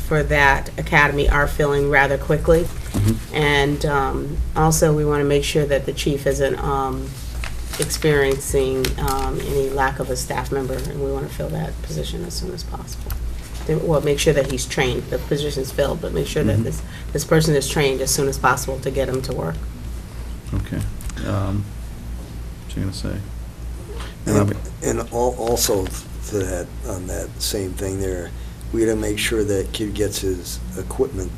for that academy are filling rather quickly. Mm-hmm. And um, also, we want to make sure that the chief isn't um, experiencing um, any lack of a staff member, and we want to fill that position as soon as possible. Then- Well, make sure that he's trained, the position's filled, but make sure Mm-hmm. that this, this person is trained as soon as possible to get him to work. Okay. Um, What's you gonna say? And I'll And be- and al- also to that, on that same thing there, we gotta make sure that kid gets his equipment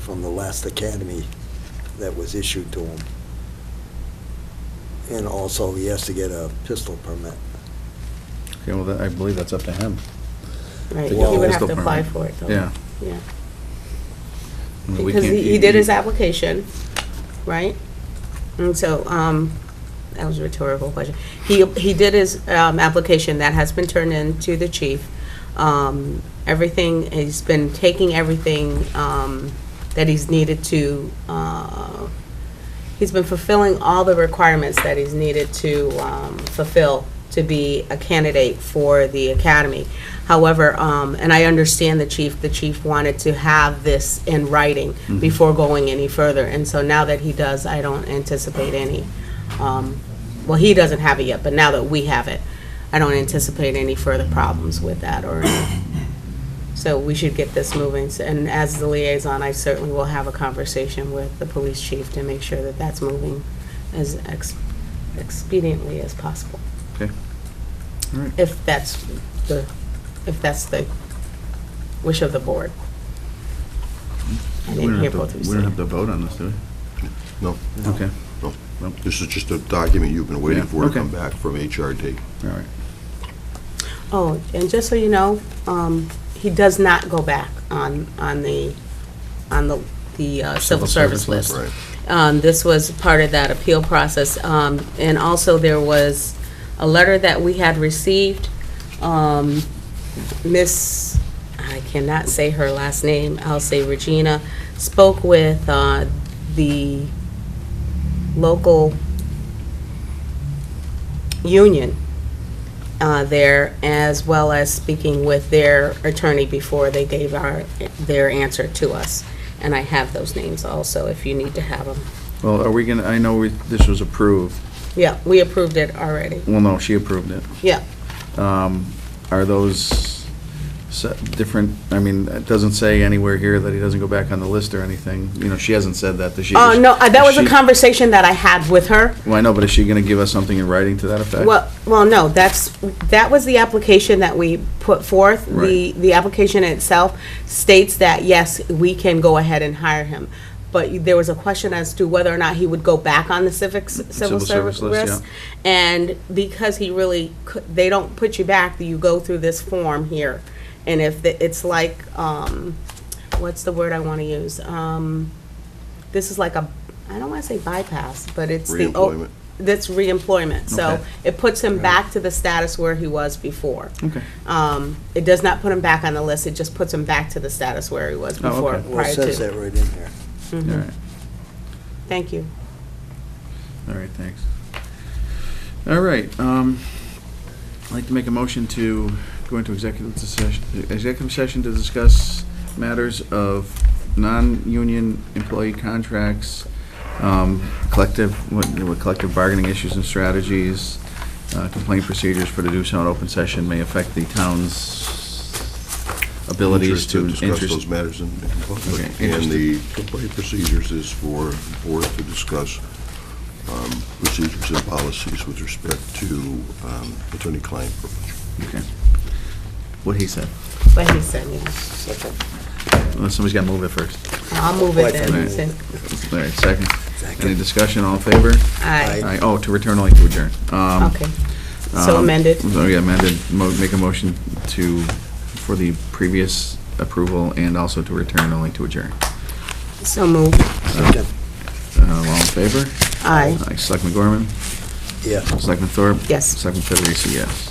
from the last academy that was issued to him. And also, he has to get a pistol permit. Okay, well, that- I believe that's up to him. Right, To he get would his have to apply department. for it, though. Yeah. Yeah, I mean, we because can't- he he did his application, right? And so, um, that was a rhetorical question. He, he did his, um, application, that has been turned in to the chief. Um, everything, he's been taking everything, um, that he's needed to, uh, he's been fulfilling all the requirements that he's needed to um, fulfill to be a candidate for the academy. However, um, and I understand the chief, the chief wanted to have this in writing before going any further. And so now that he does, I don't anticipate any, um, well, he doesn't have it yet, but now that we have it, I don't anticipate any further problems with that or any so we should get this moving, S- and as the liaison, I certainly will have a conversation with the police chief to make sure that that's moving as ex- expediently as possible, Okay. All right. if that's the, if that's the wish of the board. I We don't didn't hear have to- both of We don't you have to vote on this, do No, we? Okay, no. This is just a document you've been waiting Yeah, for to okay. come back from HRD. all right. say. Oh, and just so you know, um, he does not go back on, on the, on the, the uh, civil service list. Right. Um, This was part of that appeal process. Um, And also, there was a letter that we had received. Um, Miss, I cannot say her last name, I'll say Regina, spoke with uh, the local union uh, there, as well as speaking with their attorney before they gave our, their answer to us. And I have those names also, if you need to have them. Well, are we gonna, I know we- this was approved. Yeah, we approved it already. Well, no, she approved it. Yeah. Um, Are those se- different, I mean, it doesn't say anywhere here that he doesn't go back on the list or anything. You know, she hasn't said that, does she? Oh, no, uh, that was a She- conversation that I had with her. Well, I know, but is she gonna give us something in writing to that effect? Well, well, no, that's, that was the application that we put forth. The, Right. the application itself states that, yes, we can go ahead and hire him. But there was a question as to whether or not he would go back on the civics, civil Civil service service list, list. And because he really, cou- they don't put you back, you go through this form here. And if, the- it's like, um, what's the word I want to use? Um, this is like a, I don't want to say bypass, but it's the. o- Reemployment. That's reemployment. So Okay. it puts him back to the status where he was before. Okay. Um, it does not put him back on the list, it just puts him back to the status where he was Oh, before, okay. Well, it prior says to. that right in there. All right, Thank you. all right, thanks. All right, um, I'd like to make a motion to go into executive session, executive session to discuss matters of non-union employee contracts, um, collective, what, what collective bargaining issues and strategies, uh, complaint procedures for the do so in open session may affect the town's abilities Interest to. Discuss interest- those matters in in public. Okay, And the complaint procedures is for board to discuss um, procedures and policies with respect to um, attorney-client privilege. okay. What he said. But he said, yeah, Well, Somebody's got to move it first. I'll move Why it then. don't He said, All right, second. Second. Any discussion, all in favor? Aye, Aye. Oh, to return only to adjourn. Um, okay. So um, amended. So, yeah, amended, Mo- make a motion to, for the previous approval and also to return only to adjourn. So moved. Second. Uh, All in favor? Aye. Aye, Selectman Gorman? Yeah. Selectman Thorpe? Yes. Selectman Federici, yes.